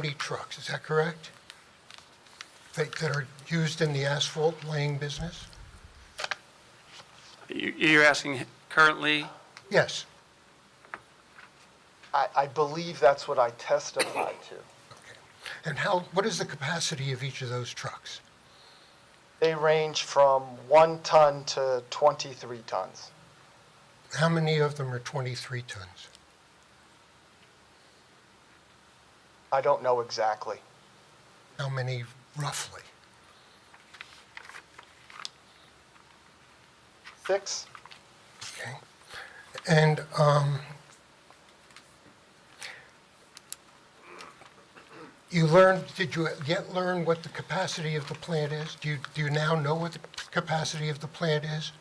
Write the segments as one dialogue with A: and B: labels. A: 40 trucks, is that correct? That that are used in the asphalt laying business?
B: You- You're asking currently,
A: Yes.
C: I, I believe that's what I testified to.
A: Okay. And how, what is the capacity of each of those trucks?
C: They range from one ton to 23 tons.
A: How many of them are 23 tons?
C: I don't know exactly.
A: How many roughly?
C: Six?
A: Okay. And um, you learned, did you yet learn what the capacity of the plant is? Do you, do you now know what the capacity of the plant is?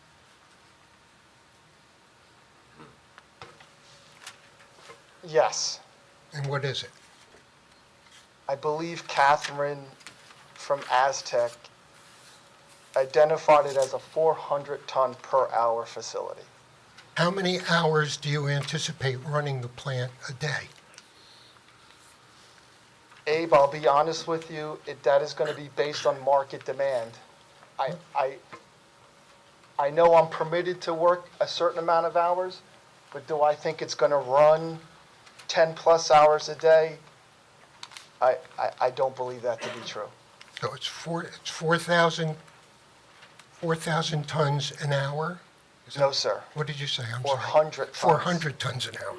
C: Yes.
A: And what is it?
C: I believe Catherine from Aztec identified it as a 400 ton per hour facility.
A: How many hours do you anticipate running the plant a day?
C: Abe, I'll be honest with you, it, that is gonna be based on market demand. I, I, I know I'm permitted to work a certain amount of hours, but do I think it's gonna run ten-plus hours a day? I, I, I don't believe that to be true.
A: So it's four, it's 4,000, 4,000 tons an hour?
C: No, sir.
A: What did you say? I'm sorry.
C: 400 tons.
A: 400 tons an hour.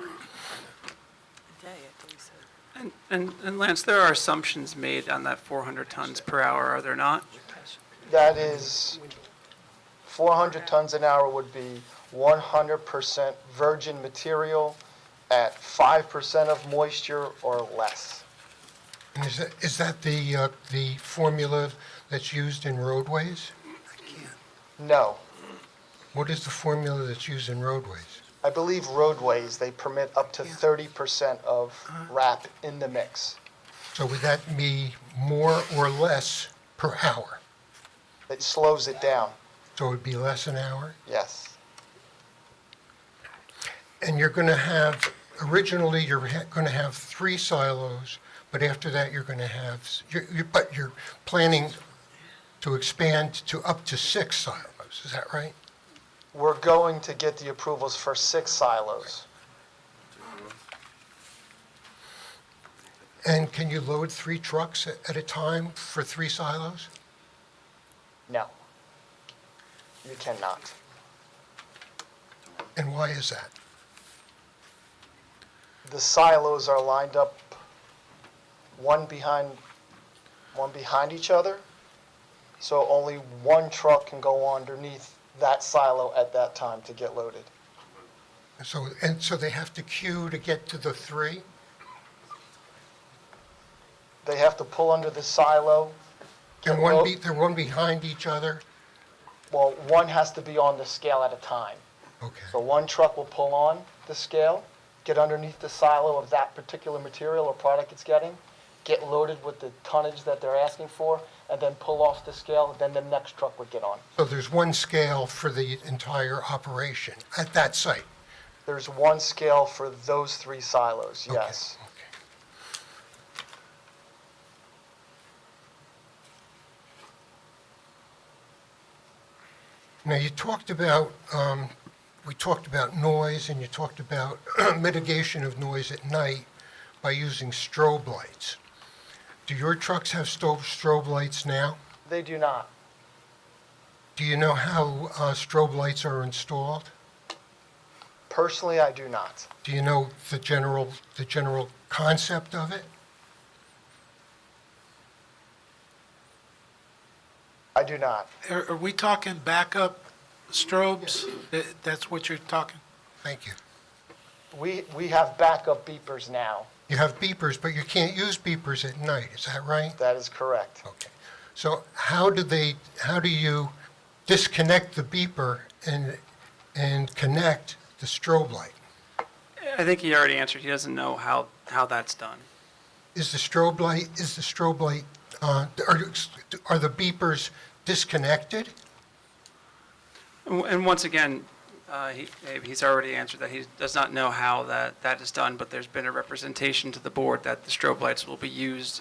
D: day, I believe so.
B: and- and and Lance, there are assumptions made on that 400 tons per hour, are there not?
C: That is, four hundred tons an hour would be one hundred percent virgin material at five percent of moisture or less.
A: And is that, is that the, uh, the formula that's used in roadways?
C: No,
A: What is the formula that's used in roadways?
C: I believe roadways, they permit up to thirty percent of wrap in the mix.
A: So would that be more or less per hour?
C: It slows it down,
A: So it would be less an hour?
C: yes.
A: And you're going to have, originally, you're going to have three silos, but after that, you're going to have, s- you're- you're- but you're planning to expand to up to six silos, is that right?
C: We're going to get the approvals for six silos.
A: And can you load three trucks a- at a time for three silos?
C: No. You cannot.
A: And why is that?
C: The silos are lined up one behind, one behind each other. So only one truck can go underneath that silo at that time to get loaded.
A: So, and so they have to queue to get to the three?
C: They have to pull under the silo.
A: And one be, they're one behind each other?
C: Well, one has to be on the scale at a time. So
A: Okay.
C: one truck will pull on the scale, get underneath the silo of that particular material or product it's getting, get loaded with the tonnage that they're asking for, and then pull off the scale, then the next truck would get on.
A: So there's one scale for the entire operation at that site?
C: There's one scale for those three silos,
A: Okay,
C: yes.
A: okay. Now, you talked about, um, we talked about noise, and you talked about mitigation of noise at night by using strobe lights. Do your trucks have sto- strobe lights now?
C: They do not.
A: Do you know how uh, strobe lights are installed?
C: Personally, I do not.
A: Do you know the general, the general concept of it?
C: I do not.
E: Are, are we talking backup strobes? That, that's what you're talking?
A: Thank you.
C: We, we have backup beepers now.
A: You have beepers, but you can't use beepers at night, is that right?
C: That is correct.
A: Okay. So how do they, how do you disconnect the beeper and, and connect the strobe light?
B: I think he already answered, he doesn't know how, how that's done.
A: Is the strobe light, is the strobe light, uh, are, you- are the beepers disconnected?
B: And w- and once again, Uh, he- eh, He's already answered that. He does not know how that, that is done, but there's been a representation to the board that the strobe lights will be used